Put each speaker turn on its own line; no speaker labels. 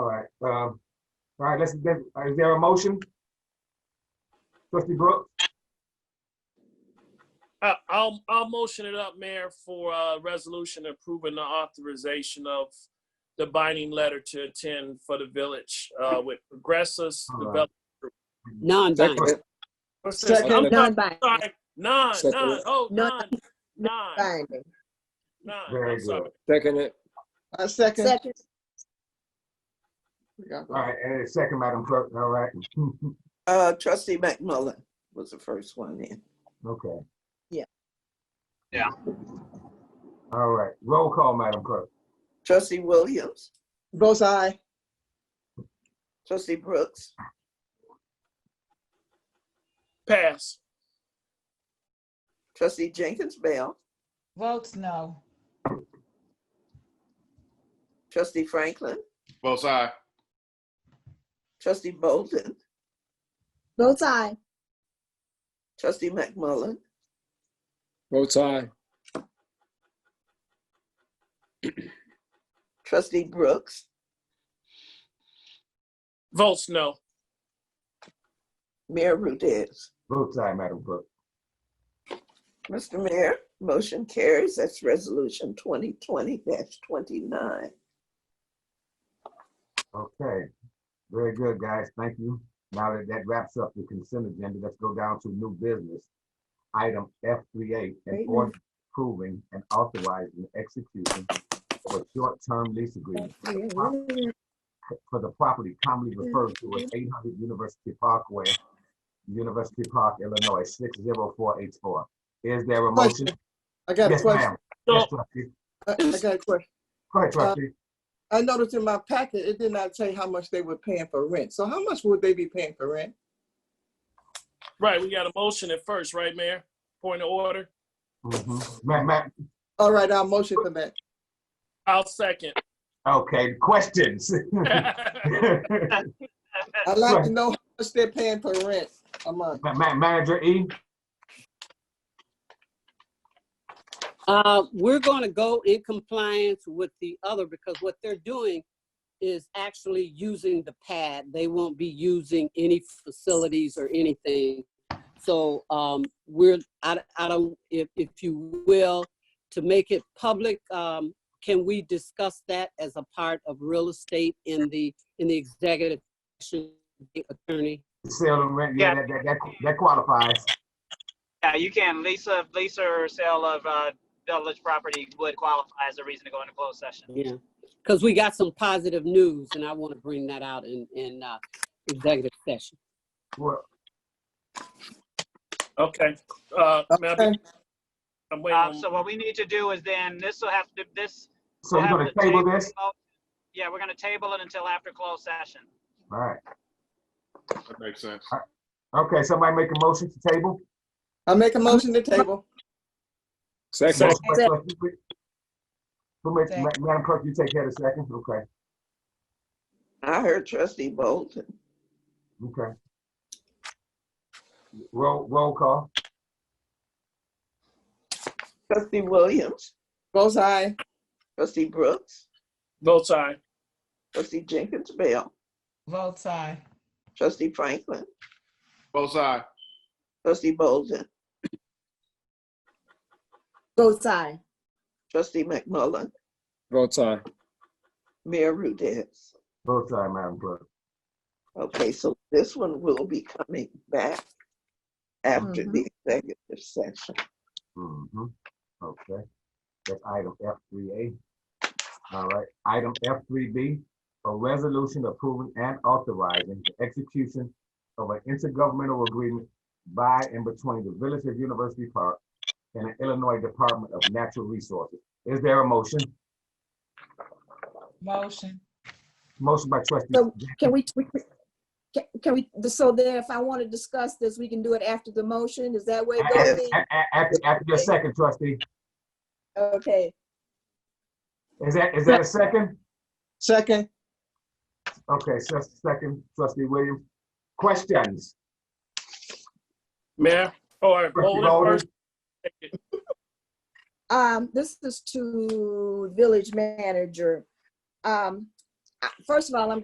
um, All right, let's get, is there a motion? Trustee Brooks,
I- I'll, I'll motion it up, Mayor, for a resolution approving the authorization of the binding letter to attend for the village uh, with Progressus
All right.
Development.
Non-binding.
Second.
What's this?
Second.
I'm not-
Non-binding.
sorry, Nine,
Second.
nine, oh, nine, nine,
Binding.
nine.
Very
I'm sorry.
Second it.
I second.
Second,
all right, and a second, Madam Clerk, all right,
Uh, trustee McMullen was the first one in.
okay.
Yeah.
Yeah.
All right, roll call, Madam Clerk.
Trustee Williams,
Both aye.
trustee Brooks,
Pass.
trustee Jenkins Bell,
Votes no.
trustee Franklin,
Both aye.
trustee Bolden,
votes aye.
trustee McMullen,
Votes aye.
trustee Brooks,
Votes no.
Mayor Rudis.
Votes aye, Madam Clerk.
Mr. Mayor, motion carries. That's resolution twenty twenty twenty-nine.
Okay, very good, guys, thank you. Now that that wraps up the consent agenda, let's go down to new business. Item F three A,
Wait
and
a
order approving and authorizing the execution of a short-term lease agreement for the property commonly referred to as eight hundred University Parkway, University Park, Illinois, six zero four eight four. Is there a motion?
Question. I got a
Yes,
question. Uh,
ma'am. Yes,
So-
trustee.
I I got a question.
Go ahead, trustee.
I noticed in my packet, it did not say how much they were paying for rent. So how much would they be paying for rent?
Right, we got a motion at first, right, Mayor? Point of order.
Mhm. Ma- ma-
All right, I'll motion for that.
I'll second.
okay, questions? Ma-
I'd like to know how much they're paying for rent a month.
ma- Manager E?
Uh, we're gonna go in compliance with the other because what they're doing is actually using the pad. They won't be using any facilities or anything. So, um, we're, I, I don't, if, if you will, to make it public, um, can we discuss that as a part of real estate in the, in the executive session, attorney?
Sell and rent, yeah,
Yeah.
that, that, that, that qualifies.
Yeah, you can. Lease of, lease or sale of, uh, village property would qualify as a reason to go into closed session.
Yeah, because we got some positive news and I want to bring that out in, in, uh, executive session.
Well,
Okay. Uh, Mayor,
Okay.
I'm waiting.
Um,
on-
so what we need to do is then, this will have to, this.
So we're
we'll
gonna
have to
table this?
Yeah, we're gonna table it until after closed session.
All right.
That makes sense.
Okay, somebody make a motion to table?
I make a motion to table.
Second.
Motion by trustee Whit- Who makes,
Second.
Ma- Madam Clerk, you take care of the second? Okay,
I heard trustee Bolden,
okay. Roll, roll call.
trustee Williams,
Both aye.
trustee Brooks,
Votes aye.
trustee Jenkins Bell,
Votes aye.
trustee Franklin,
Both aye.
trustee Bolden,
votes aye.
trustee McMullen,
Votes aye.
Mayor Rudis.
Both sides, Madam Clerk.
Okay, so this one will be coming back after the executive session.
Mm-hmm. Okay. That's item F three A. All right, item F three B, a resolution approving and authorizing the execution of an intergovernmental agreement by and between the Village of University Park and the Illinois Department of Natural Resources. Is there a motion?
Motion.
Motion by trustee,
So can we, we- we- can- can we, so then if I want to discuss this, we can do it after the motion? Is that way it goes?
A-
then?
a- a- after, after your second trustee.
Okay,
Is that, is that a second?
Second,
Okay, so second trustee Williams. Questions?
Mayor, or
Trustee
Bolden
Bowden?
first.
um, this is to village manager. Um, I- first of all, I'm